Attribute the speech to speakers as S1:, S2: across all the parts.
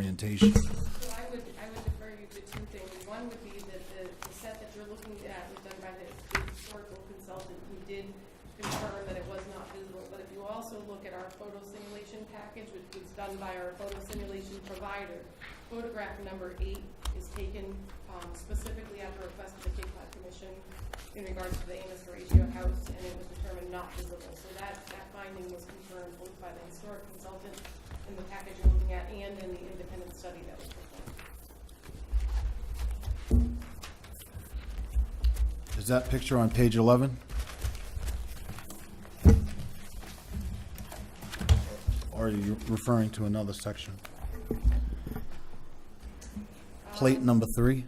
S1: orientation.
S2: So I would, I would defer you to two things. One would be that the, the set that you're looking at was done by the the historical consultant who did confirm that it was not visible. But if you also look at our photo simulation package, which was done by our photo simulation provider, photograph number eight is taken um, specifically at the request of the Cape Cod uh, Commission in regards to the Amos Horatio House, and it was determined not visible. So that, that finding was confirmed both by the historic consultant in the package you're looking at and in the independent study that was performed.
S1: Is that picture on page 11? Or are you referring to another section? Plate number three?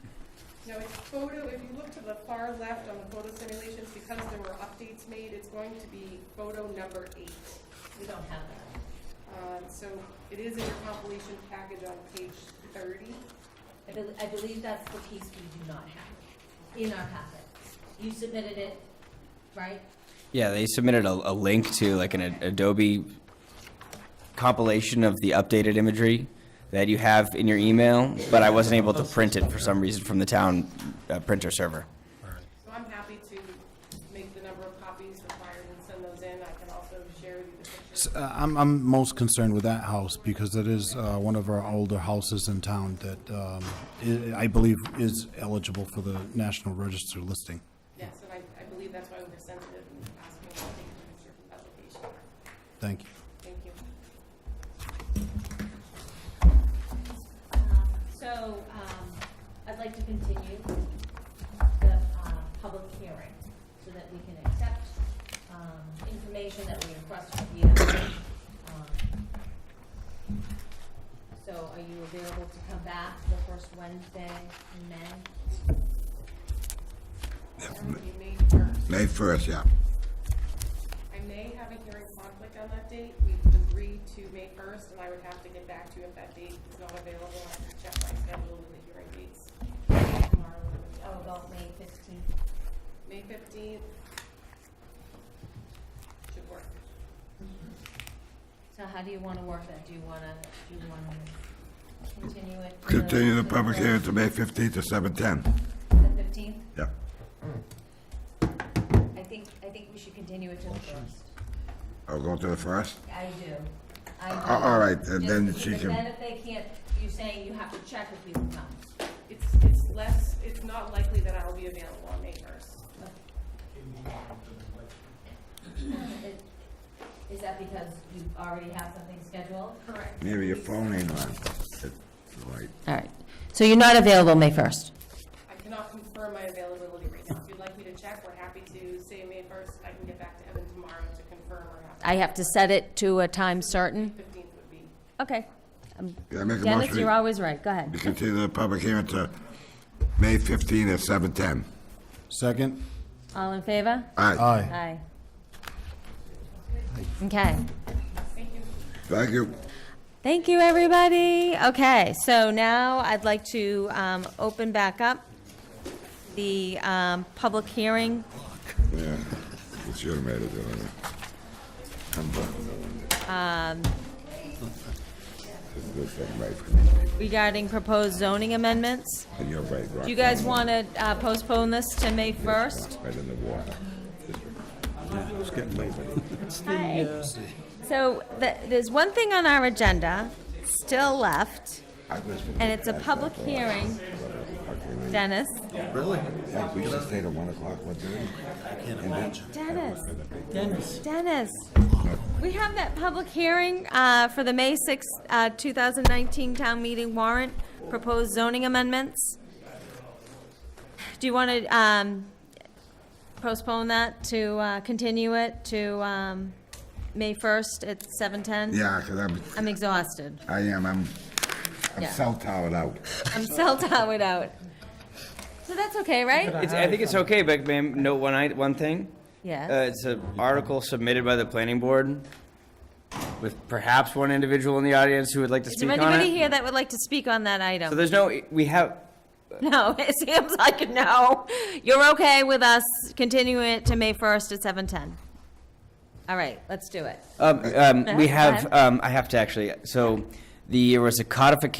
S2: Now, if photo, if you look to the far left on the photo simulations, because there were updates made, it's going to be photo number eight.
S3: We don't have that.
S2: Uh, So it is in your compilation package on page thirty.
S3: I believe, I believe that's the piece we do not have in our packet. You submitted it, right?
S4: Yeah, they submitted a, a link to like an Ad- Adobe compilation of the updated imagery that you have in your email, but I wasn't able to print it for some reason from the town uh, printer server.
S2: So I'm happy to make the number of copies required and send those in. I can also share with you the pictures.
S1: S- uh, I'm, I'm most concerned with that house because it is uh, one of our older houses in town that um, i- I believe is eligible for the National Register listing.
S2: Yes, and I, I believe that's why we were sensitive in asking to take the picture from application.
S1: Thank you.
S2: Thank you.
S3: Um, So, um, I'd like to continue the, uh, public hearing so that we can accept, um, information that we requested of you. Um, So are you available to come back the first Wednesday in May?
S2: That would be May first.
S5: May first, yeah.
S2: I may have a hearing conflict on that date. We've agreed to May first, and I would have to get back to you if that date is not available. I have to check my schedule with the hearing dates tomorrow.
S3: Oh, about May fifteenth.
S2: May fifteenth should work.
S3: So how do you wanna work that? Do you wanna, do you wanna continue it? to
S5: Continue the
S3: to
S5: public hearing to May fifteenth to seven ten.
S3: The fifteenth?
S5: Yeah.
S3: I think, I think we should continue it to the first.
S5: I'll go to the first.
S3: I do. I
S5: A-
S3: do.
S5: all right, then-
S3: Just
S5: then she
S3: because
S5: can-
S3: Then if they can't, you're saying you have to check if we can come.
S2: It's, it's less, it's not likely that I'll be available on May first.
S3: Is- Is that because you already have something scheduled? Correct.
S5: Maybe your phone ain't on. It- Right.
S3: All right, so you're not available May first?
S2: I cannot confirm my availability right now. If you'd like me to check, we're happy to say May first. I can get back to Evan tomorrow to confirm or have.
S6: I have to set it to a time certain?
S2: Fifteenth would be,
S6: Okay.
S5: Yeah, make a
S6: Dennis,
S5: motion.
S6: you're
S5: to-
S6: always right. Go
S5: to
S6: ahead.
S5: Continue the public hearing to May fifteenth at seven ten.
S1: Second?
S6: All in favor?
S5: All right,
S1: Aye.
S6: Aye. Okay.
S2: thank you.
S5: thank you.
S6: Thank you, everybody. Okay, so now I'd like to um, open back up the um, public hearing.
S5: Yeah, we should have made it. didn't we? I'm done. This is a good thing, right, for me.
S6: regarding proposed zoning amendments.
S5: And you're right, Rock.
S6: Do you guys want to postpone this to May 1st?
S5: Right in the water. It's getting late.
S6: Hi. So th- there's one thing on our agenda still left,
S5: I was gonna
S6: and it's a
S5: ask that
S6: public
S5: for-
S6: hearing. Dennis?
S5: Like, we should stay till one o'clock one day.
S6: Dennis. Dennis. Dennis. We have that public hearing uh, for the May 6th, uh, 2019 town meeting warrant, proposed zoning amendments. Do you want to postpone that to uh, continue it to um, May 1st at 7:10?
S5: Yeah, because I'm,
S6: I'm exhausted.
S5: I am, I'm, I'm
S6: Yeah.
S5: self-taught out.
S6: I'm cell-towered out. So that's okay, right?
S4: It's, I think it's okay, but may I note one, i- one thing? Uh,
S6: Yes.
S4: it's an article submitted by the planning board with perhaps one individual in the audience who would like to
S6: Is there
S4: speak on
S6: anybody
S4: it.
S6: here that would like to speak on that item?
S4: So there's no, we have,
S6: No, it seems like no. You're okay with us continuing it to May 1st at 7:10? All right, let's do it.
S4: um, um, we
S6: Go
S4: have,
S6: ahead.
S4: um, I have to actually, so the, there was a codification